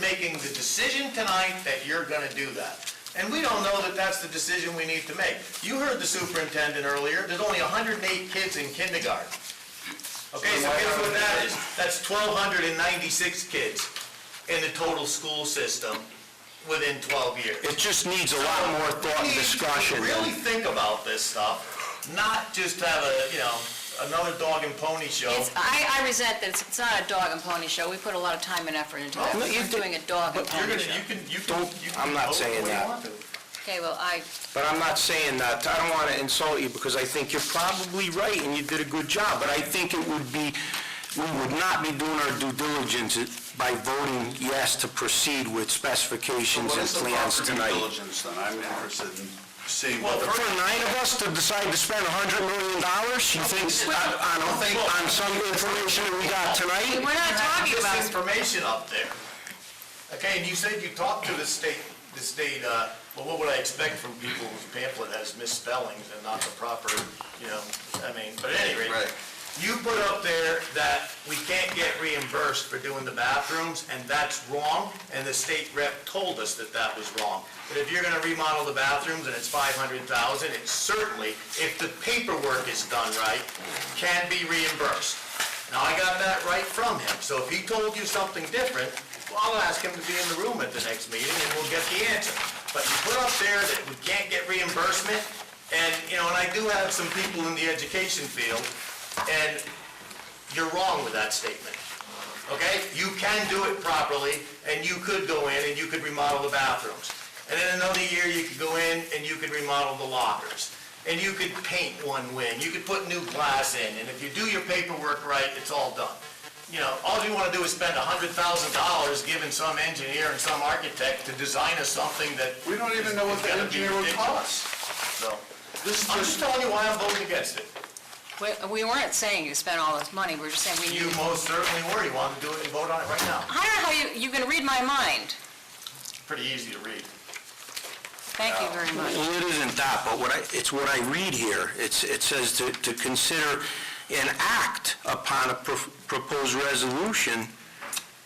making the decision tonight that you're gonna do that. And we don't know that that's the decision we need to make. You heard the superintendent earlier, there's only 108 kids in kindergarten. Okay, so guess what that is? That's 1,296 kids in the total school system within 12 years. It just needs a lot more thought and discussion Really than, think about this stuff, not just have a, you know, another dog and pony show. It's, I, I resent that it's, it's not a dog and pony show. We put a lot of time and effort into that. No, you We're did- doing a dog and but You're pony gonna, show. you can, you can. Don't- you can I'm not vote the saying way you that. want to. Okay, well, I, but I'm not saying that, I don't want to insult you because I think you're probably right and you did a good job, but I think it would be, we would not be doing our due diligence by voting yes to proceed with specifications and What is the plans proper due tonight. diligence then? I'm interested in seeing Well, what the... first- For nine of us to decide to spend a hundred million dollars, you think, on, on on some information that we got we're tonight? not This talking about, information up there. Okay, and you said you talked to the state, the state, uh, well, what would I expect from people whose pamphlet has misspellings and not the proper, you know, I mean, but at any rate. Right. You put up there that we can't get reimbursed for doing the bathrooms, and that's wrong, and the state rep told us that that was wrong. But if you're gonna remodel the bathrooms and it's five hundred thousand, it certainly, if the paperwork is done right, can be reimbursed. Now, I got that right from him, so if he told you something different, well, I'll ask him to be in the room at the next meeting and we'll get the answer. But you put up there that we can't get reimbursement, and, you know, and I do have some people in the education field and you're wrong with that statement, okay? You can do it properly, and you could go in and you could remodel the bathrooms. And then another year, you could go in and you could remodel the lockers. And you could paint one wing, you could put new glass in, and if you do your paperwork right, it's all done. You know, all you wanna do is spend a hundred thousand dollars giving some engineer and some architect to design us something that. We don't even know what the is gonna be engineer would ridiculous. cost. So, This is I'm just just, telling you why I'm voting against it. we- we weren't saying you spent all this money. We're just saying we You need. most certainly were, you wanted to do it and vote on it right now. I don't know how you, you can read my mind. Pretty easy to read. Thank you very much. Well, it isn't that, but what I, it's what I read here. It's, it says to, to consider an act upon a pro- proposed resolution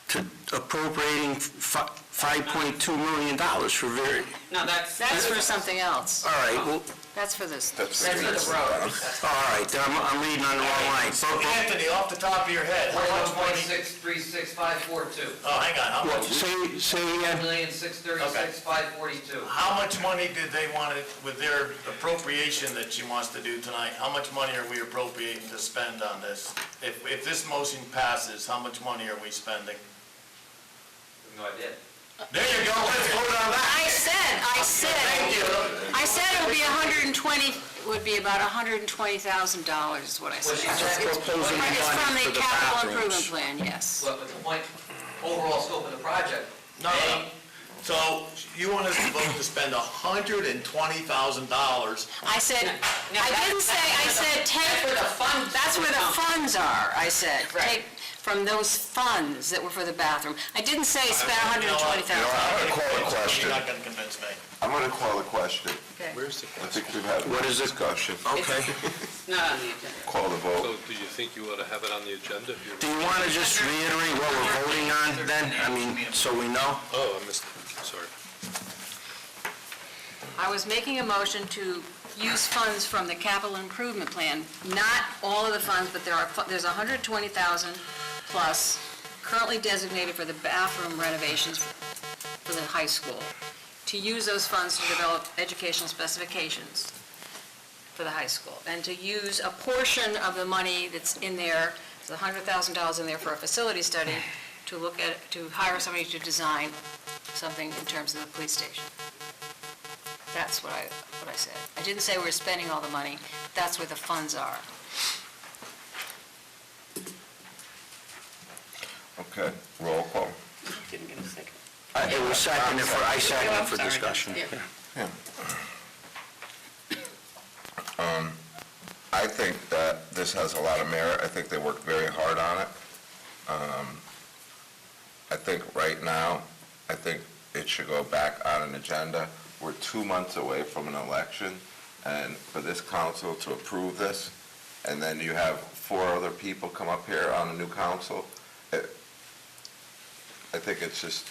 to appropriating fi- 5.2 million dollars for very, No, that's, That's for something else. all right, well, That's for this. that's for the road. all right, then I'm, I'm reading on the wrong line. But- but- Anthony, off the top of your head, how One much point money? six three six five four two. Oh, hang on, how Well, much, say, say he One had million six thirty-six five forty-two. how much money did they want it, with their appropriation that she wants to do tonight, how much money are we appropriating to spend on this? If, if this motion passes, how much money are we spending? No idea. There you go, let's vote on that. I said, I Thank said, you. I said it would be hundred and twenty, would be about hundred and twenty thousand dollars is what I Well, said. she said, proposing money It's from for the the capital improvement bathrooms. plan, yes. but but the point, overall scope of the project. No, no, so you want us to vote to spend hundred and twenty thousand dollars? I said, No, I that- didn't say, I that's where said the- take. that's where the funds That's where the come. funds are, I said. Right. Take from those funds that were for the bathroom. I didn't say spend hundred and twenty You know, thousand. I'm gonna call a question. You're not gonna convince me. I'm gonna call a question. Okay. I think we've had What a is it? discussion. Okay. Not on the agenda. Call the vote. So do you think you ought to have it on the agenda? if you're- Do you want to just reiterate what we're voting on then? I mean, so we know? Oh, I missed, sorry. I was making a motion to use funds from the capital improvement plan, not all of the funds, but there are, fu- there's hundred and twenty thousand plus currently designated for the bathroom renovations for the high school, to use those funds to develop educational specifications for the high school, and to use a portion of the money that's in there, the hundred thousand dollars in there for a facility study, to look at, to hire somebody to design something in terms of the police station. That's what I, what I said. I didn't say we were spending all the money, that's where the funds are. Okay, roll call. I- It was seconded for, I seconded for discussion. I think that this has a lot of merit. I think they worked very hard on it. Um, I think right now, I think it should go back on an agenda. We're two months away from an election, and for this council to approve this, and then you have four other people come up here on a new council, it- I think it's just